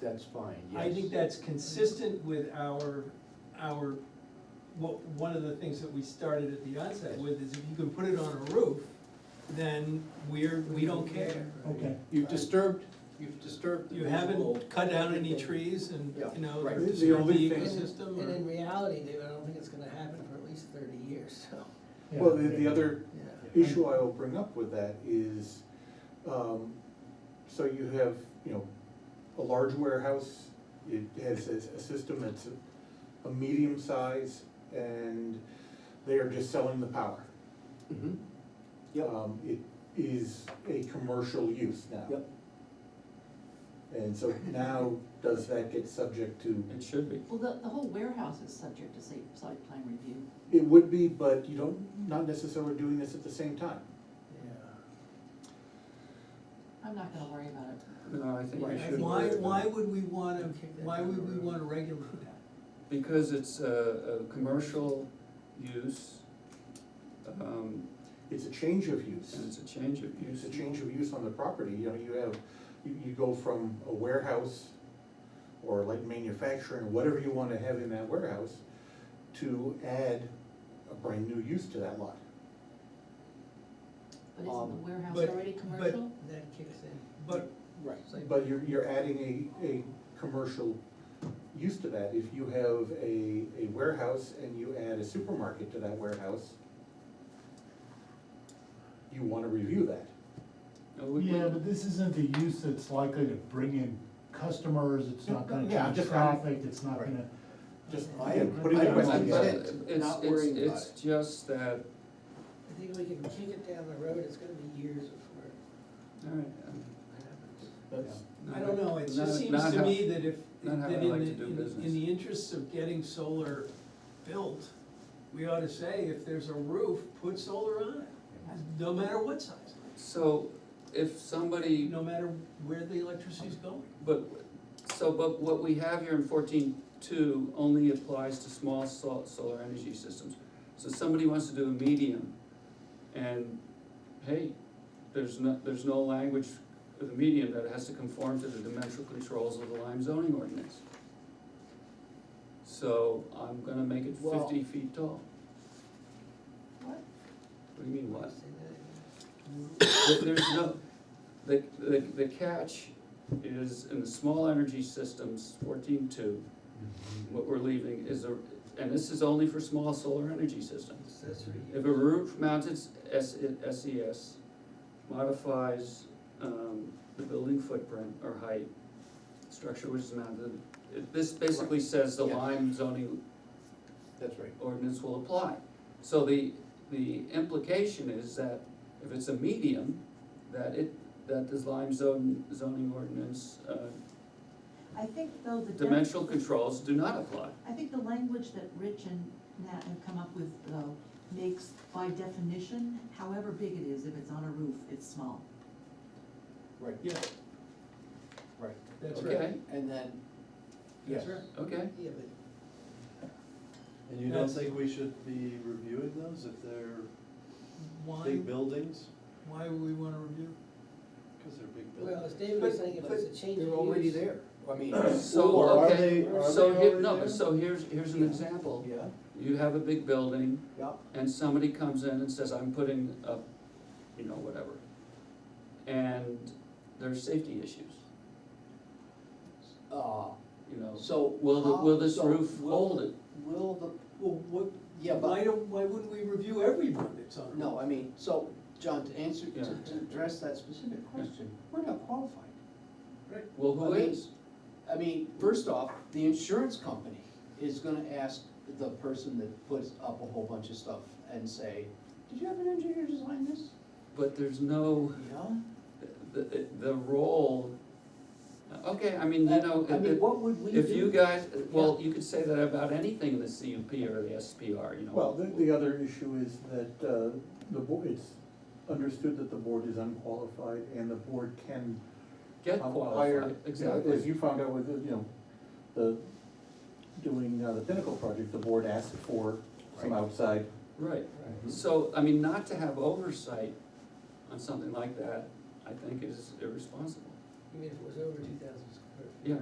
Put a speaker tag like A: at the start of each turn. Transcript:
A: That's fine, yes.
B: I think that's consistent with our, our, what, one of the things that we started at the onset with is if you can put it on a roof, then we're, we don't care.
C: Okay.
D: You've disturbed, you've disturbed the
B: You
D: visual.
B: haven't cut down any
D: everything.
B: trees and,
D: Yeah,
B: you know,
D: right.
C: The
B: disturb the
C: only thing-
B: ecosystem
E: And in
B: or.
E: reality, David, I don't think it's gonna happen for at least thirty years, so,
D: Well, the, the other
E: yeah.
D: issue I will bring up with that is, um, so you have, you know, a large warehouse, it has a, a system that's a- a medium size, and they are just selling the power.
A: Mhm. Yep,
D: Um, It is a commercial use now.
A: yep,
D: And so now, does that get subject to,
F: It should be.
G: Well, the, the whole warehouse is subject to site, site plan review.
D: it would be, but you don't, not necessarily doing this at the same time.
G: I'm not gonna worry about it.
F: No, I think
D: Why
F: we should.
B: Why, why would we wanna,
E: Kick that
B: why would
E: down
B: we
E: the road.
B: wanna regulate that?
F: Because it's a, a commercial use, um,
D: It's a change of use.
F: and it's a change of
D: It's
F: use.
D: a change of use on the property, you know, you have, you, you go from a warehouse or like manufacturing, whatever you wanna have in that warehouse, to add a brand new use to that lot.
G: But isn't the
A: Um,
G: warehouse
B: but-
G: already
B: but-
G: commercial?
E: That kicks in.
B: But,
A: right.
E: Site
D: But you're, you're adding a, a commercial use to that, if you have a, a warehouse and you add a supermarket to that warehouse, you wanna review that.
F: No, we- we-
C: Yeah, but this isn't a use that's likely to bring in customers, it's not gonna
D: Yeah,
C: change
D: just kind of-
C: traffic, it's not gonna.
D: Just
A: I am
D: putting the
A: I was
D: question.
F: But
A: upset,
F: it's,
A: not
F: it's,
A: worrying about
F: it's just that,
E: I think we can kick it down the road, it's gonna be years before
F: all right. um,
E: it happens.
D: That's-
F: no,
B: I don't know, it
F: not-
B: just seems
F: not
B: to
F: how-
B: me that if,
F: not how
B: that
F: I
B: in
F: like
B: the,
F: to do
B: in the-
F: business.
B: in the interests of getting solar built, we ought to say, if there's a roof, put solar on it, no matter what size,
F: So if somebody
B: no matter where the electricity's going.
F: But, so, but what we have here in fourteen two only applies to small sol- solar energy systems. So somebody wants to do a medium, and hey, there's no, there's no language for the medium that has to conform to the dimensional controls of the Lime zoning ordinance. So I'm gonna make it
A: Well-
F: fifty feet tall.
G: What?
F: What do you mean what?
E: Say that again.
F: There- There's no, the, the, the catch is in the small energy systems, fourteen two, what we're leaving is a, and this is only for small solar energy systems.
E: Accessory use.
F: If a roof mounted S, SES modifies, um, the building footprint or height, structure which is mounted, it- this basically says the
A: Yeah.
F: Lime zoning
A: That's right.
F: ordinance will apply. So the, the implication is that if it's a medium, that it, that this Lime zone, zoning ordinance, uh,
G: I think though the. def-
F: dimensional controls do not apply.
G: I think the language that Rich and Nat have come up with though makes by definition, however big it is, if it's on a roof, it's small.
A: Right,
B: Yeah,
A: right.
B: that's right.
F: Okay,
A: And then, yes.
B: That's right.
F: okay.
E: Yeah, but
H: And you don't
B: That's-
H: think we should be reviewing those if they're
B: Why,
H: big buildings?
B: why would we wanna review?
H: Because they're big
E: Well,
H: buildings.
E: as David was saying, if it's a change of use.
A: They're already there, I mean.
F: So,
A: or are
F: okay,
A: they- are
F: so
A: they
F: here,
A: already
F: no,
A: there?
F: but so here's, here's an example.
A: Yeah,
F: You have a big building
A: yeah,
F: and somebody comes in and says, I'm putting up, you know, whatever. And there's safety issues,
A: uh,
F: you know.
A: so.
F: Will, the-
A: how-
F: will this
A: so
F: roof
A: will-
F: hold it?
A: Will the, well, what, yeah, but.
B: Why don't, why wouldn't we review everyone that's on a roof?
A: No, I mean, so, John, to answer, to,
F: Yeah.
A: to address that specific question, we're not qualified.
F: Well, who
A: I mean,
F: is?
A: I mean, first off, the insurance company is gonna ask the person that puts up a whole bunch of stuff and say, did you have an engineer design this?
F: But there's no,
A: Yeah.
F: the, the role, okay, I mean, you know,
A: I mean,
F: if,
A: what would we do?
F: if you guys, well, you could say that about anything in the CUP or the SPR, you know.
D: Well, the, the uh, other issue is that, uh, the board, it's understood that the board is unqualified and the board can.
F: Get
D: um, hire-
F: qualified,
D: you know, As
F: exactly,
D: you found out with, the, you know, the, doing uh, the Pinnacle project, the board asked for some
A: Right.
D: outside.
F: right.
A: Right.
F: So, I mean, not to have oversight on something like that, I think is irresponsible,
E: Even if it was over two thousand square feet.
F: yeah,